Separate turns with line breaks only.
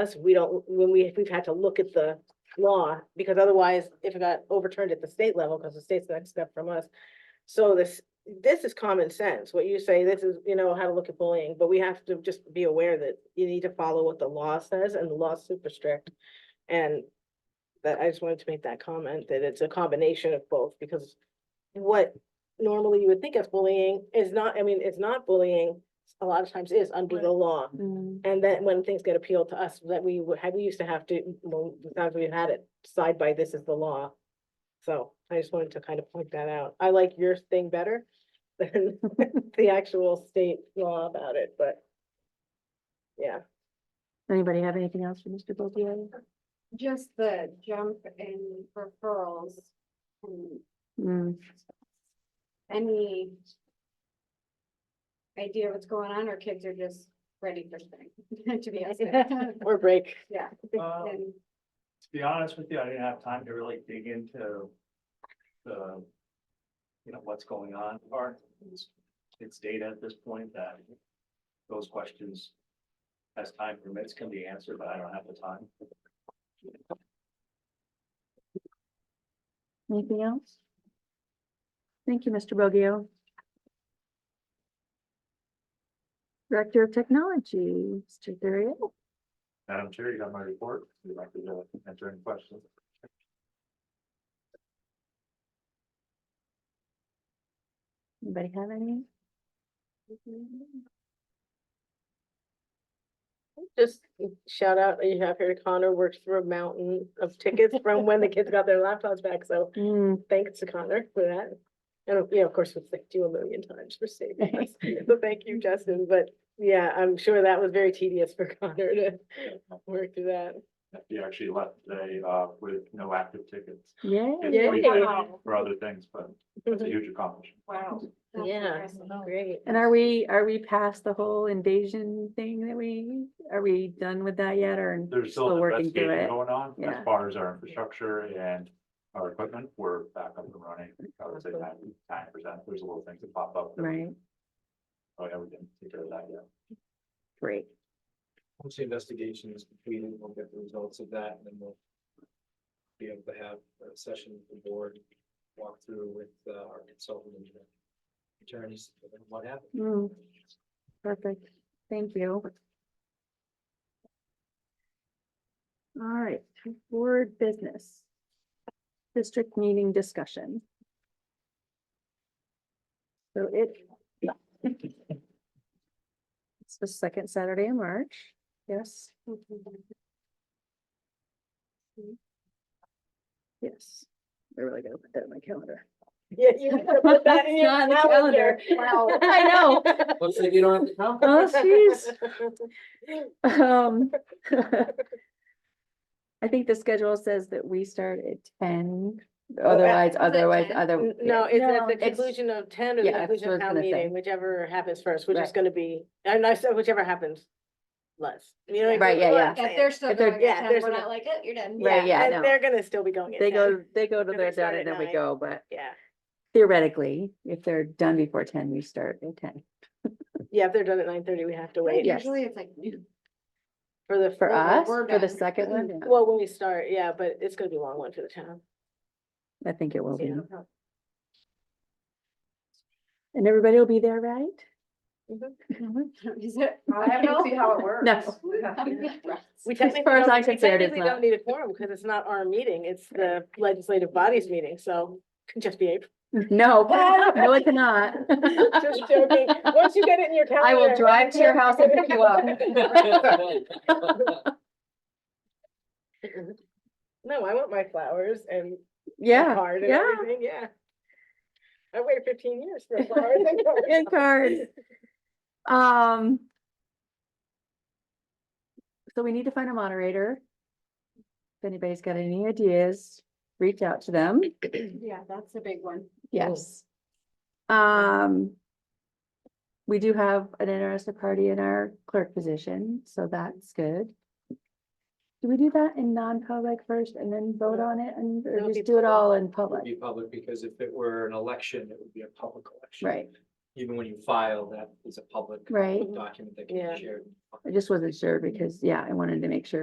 us, we don't, when we, we've had to look at the law, because otherwise, if it got overturned at the state level, because the state's the next step from us. So this, this is common sense, what you say, this is, you know, how to look at bullying, but we have to just be aware that you need to follow what the law says, and the law's super strict. And that, I just wanted to make that comment, that it's a combination of both, because what normally you would think of bullying is not, I mean, it's not bullying, a lot of times is under the law.
Mm.
And then when things get appealed to us, that we would, had- we used to have to, well, the times we had it, side by this is the law. So I just wanted to kind of point that out. I like your thing better than the actual state law about it, but. Yeah,
Anybody have anything else for Mr. Bulgari?
Just the jump in referrals and
Mm,
any idea what's going on, or kids are just ready for spring, to be honest.
or break.
Yeah.
Um,
And
To be honest with you, I didn't have time to really dig into the, you know, what's going on part. It's- It's data at this point that those questions, as time permits, can be answered, but I don't have the time.
anything else? Thank you, Mr. Boggio. Director of Technology, Mr. Thurio.
Madam Chair, you got my report. You'd like to enter any questions?
Anybody have any?
Just shout out, that you have here Connor works through a mountain of tickets from when the kids got their laptops back, so
Mm,
thanks to Connor for that. And, you know, of course, we've thanked you a million times for saving us, but thank you, Justin, but yeah, I'm sure that was very tedious for Connor to work through that.
You actually left today uh with no active tickets
Yay.
Yay.
Wow.
for other things, but huge accomplishment.
Wow. that's
Yeah.
impressive.
Great.
And are we, are we past the whole invasion thing that we, are we done with that yet or
There's still
still
an
working through
investigation
it?
going on
Yeah.
as far as our infrastructure and our equipment. We're back up and running. I would say
Awesome.
nine percent. There's a little things that pop up. that-
Right,
Oh, yeah, we didn't take care of that yet.
great.
Once the investigation is completed, we'll get the results of that and then we'll. Be able to have a session with the board, walk through with uh, our consultant and attorneys, and what happened.
Mm, Perfect, thank you. All right, board business. District meeting discussion. So it. It's the second Saturday in March, yes, yes. I really gotta put that in my calendar.
Yeah, you better put that in your
Not on the calendar.
Wow.
I know.
Looks like you don't have to come.
Oh, jeez. Um. I think the schedule says that we start at ten, otherwise,
that
otherwise,
10?
other.
Oh, N- No, it's at
No,
the
it's-
conclusion of ten or the
Yeah, that's
conclusion
what I
of town
was gonna say.
meeting, whichever happens first, which is
Right.
gonna be, and I said whichever happens less. You know what I mean?
Right, yeah,
What
yeah.
I'm
If
saying.
they're still
If they're-
going
yeah,
at ten,
there's
we're
no-
not like, oh, you're done.
Right, yeah, no.
And they're gonna still be going. at
They
10.
go, they go to
Then they
their
start
data and
at
then we
nine.
go, but
Yeah,
theoretically, if they're done before ten, we start at ten.
yeah, if they're done at nine thirty, we have to
Right,
wait
yes.
Usually it's like noon.
for the.
For
well,
us,
we're
for the
done.
second one, yeah,
Well, when we start, yeah, but it's gonna be a long one for the town.
I think it will be.
Yeah.
And everybody will be there, right?
Mm-hmm.
Is it?
I have to see how it works.
We
As
technically
far as
don't-
I'm
we
concerned, it's
technically
not.
Don't need a quorum because it's not our meeting, it's the legislative body's meeting, so could just be April.
No, no, it's not.
Just joking. Once you get it in your calendar.
I will drive to your house and pick you up.
No, I want my flowers and. my
Yeah,
Card and
yeah.
everything, yeah. I waited fifteen years for flowers and cards.
And cards. Um. So we need to find a moderator. If anybody's got any ideas, reach out to them.
Yeah, that's a big one.
Yes. Um. We do have an interested party in our clerk position, so that's good. Do we do that in non-public first and then vote on it and or
That would
just
be
do it all in
It would
public?
Be public, because if it were an election, it would be a public election.
Right,
Even when you file, that is a public
right.
document that can
Yeah.
be shared.
I just wasn't sure because, yeah, I wanted to make sure